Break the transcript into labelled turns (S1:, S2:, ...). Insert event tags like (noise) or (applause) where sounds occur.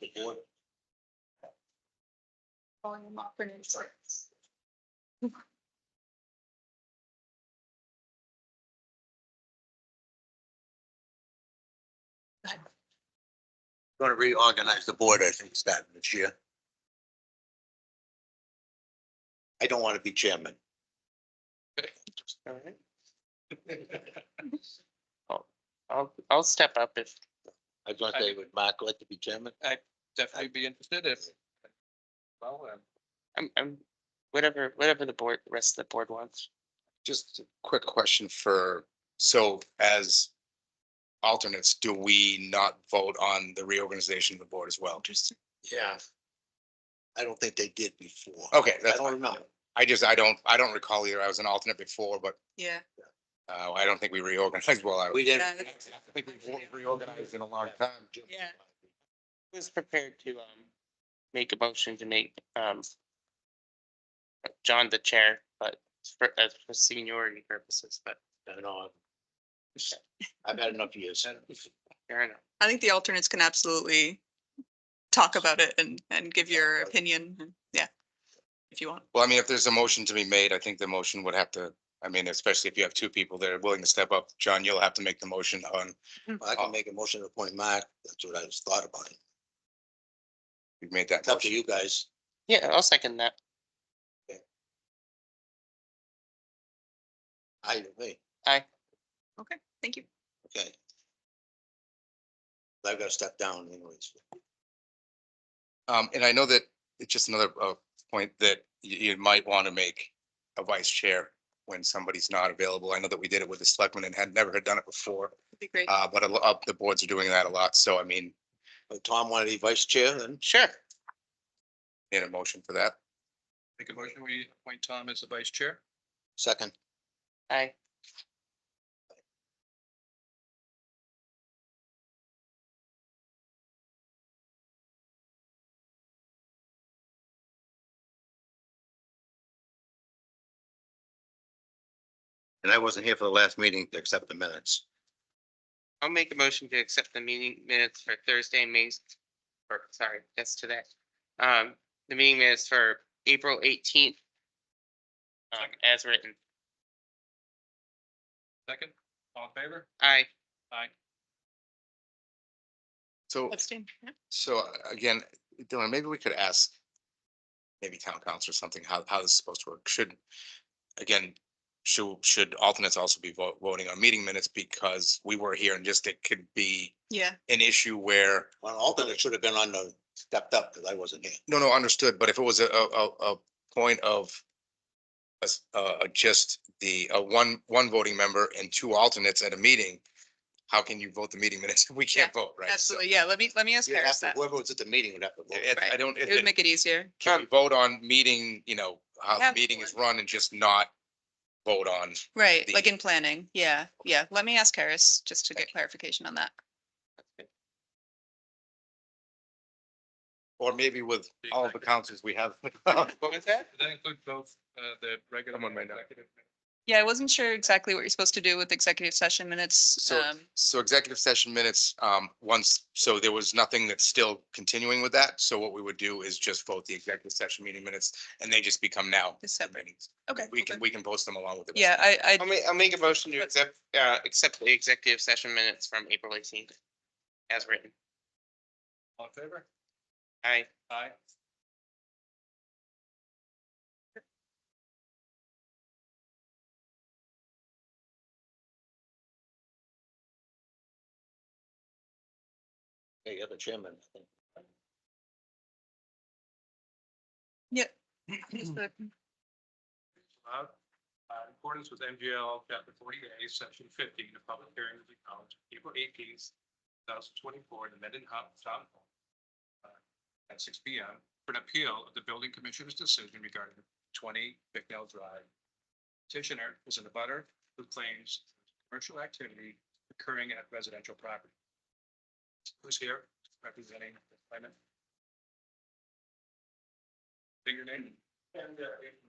S1: the board.
S2: volume up and insurance.
S1: Going to reorganize the board, I think, starting this year. I don't want to be chairman.
S3: All right. I'll- I'll, I'll step up if
S1: I was going to say, would Mark like to be chairman?
S4: definitely be interested if. Well, um,
S3: I'm, I'm, whatever, whatever the board, the rest of the board wants.
S5: Just a quick question for, so as alternates, do we not vote on the reorganization of the board as well?
S3: Interesting.
S1: Yeah. I don't think they did before.
S5: Okay,
S1: I
S5: that's,
S1: don't remember.
S5: I just, I don't, I don't recall either. I was an alternate before, but
S6: Yeah,
S5: uh, I don't think we reorganized well. I
S1: We didn't.
S6: yeah,
S5: I think we've reorganized in a long time.
S6: yeah.
S3: Who's prepared to, um, make a motion to make, um, John the chair, but for, uh, for seniority purposes, but
S1: I know. I've had enough years.
S3: fair enough.
S6: I think the alternates can absolutely talk about it and, and give your opinion. and- Yeah. If you want.
S5: Well, I mean, if there's a motion to be made, I think the motion would have to, I mean, especially if you have two people that are willing to step up. John, you'll have to make the motion on,
S1: I can make a motion to appoint Mark. That's what I just thought about. it.
S5: you've made that
S1: It's up to
S5: motion.
S1: you guys.
S3: Yeah, I'll second that.
S1: I, me,
S6: Thank you.
S1: okay. I've got to step down anyways.
S5: Um, and I know that it's just another, uh, point that you, you might want to make a vice chair when somebody's not available. I know that we did it with the selectmen and had never had done it before,
S6: It'd be great.
S5: uh, but a lot, the boards are doing that a lot. So I mean,
S1: But Tom wanted to be vice chair and
S3: Sure.
S5: in a motion for that.
S4: make a motion, we appoint Tom as the vice chair.
S1: second.
S3: Aye.
S1: And I wasn't here for the last meeting to accept the minutes.
S3: I'll make a motion to accept the meeting minutes for Thursday, May, or sorry, that's today. Um, the meeting minutes for April eighteenth. Um, as written.
S4: Second, all in favor?
S3: Aye.
S4: Aye.
S5: So,
S6: Abstain. Yeah.
S5: so uh, again, Dylan, maybe we could ask maybe town council or something, how, how this is supposed to work. Should, again, should, should alternates also be vo- voting on meeting minutes because we were here and just it could be
S6: Yeah.
S5: an issue where
S1: Well, alternate should have been on the, stepped up because I wasn't here.
S5: No, no, understood, but if it was a, a, a, a point of a s- uh, just the, uh, one, one voting member and two alternates at a meeting, how can you vote the meeting minutes? (laughs) We can't vote, right? So,
S6: Absolutely. Yeah. Let me, let me ask
S1: You'd have
S6: Paris
S1: to-
S6: that.
S1: Whoever was at the meeting would have to vote.
S5: it- I don't,
S6: It would
S5: it-
S6: make it easier.
S5: can we vote on meeting, you know, how the
S6: Have
S5: meeting is run and just not vote on,
S6: Right.
S5: the-
S6: Like in planning. Yeah. Yeah. Let me ask Harris just to get clarification on that.
S5: or maybe with all of the councils we have.
S3: What was that?
S4: Does that include both, uh, the regular?
S5: Someone might know.
S4: executive?
S6: Yeah. I wasn't sure exactly what you're supposed to do with executive session minutes.
S5: So,
S6: um,
S5: so executive session minutes, um, once, so there was nothing that's still continuing with that. So what we would do is just vote the executive session meeting minutes and they just become now.
S6: Is separate.
S5: meetings.
S6: Okay.
S5: We can,
S6: okay.
S5: we can post them along with it.
S6: Yeah. I, I,
S3: I'll make, I'll make a motion to accept, uh, accept the executive session minutes from April eighteenth. As written.
S4: All in favor?
S3: Aye.
S4: Aye.
S1: Yeah, you're the chairman. I think.
S4: Allowed. Uh, in accordance with MGL chapter forty-eight, section fifteen, the public hearing will be held April eighteenth, two thousand twenty-four, in the Mendon Hub Town Hall. uh, At six P M, for an appeal of the building commissioner's decision regarding twenty Bicknell Drive. Petitioner is in the butter who claims commercial activity occurring at residential property. Who's here representing the claimant? Bigger name? And, uh,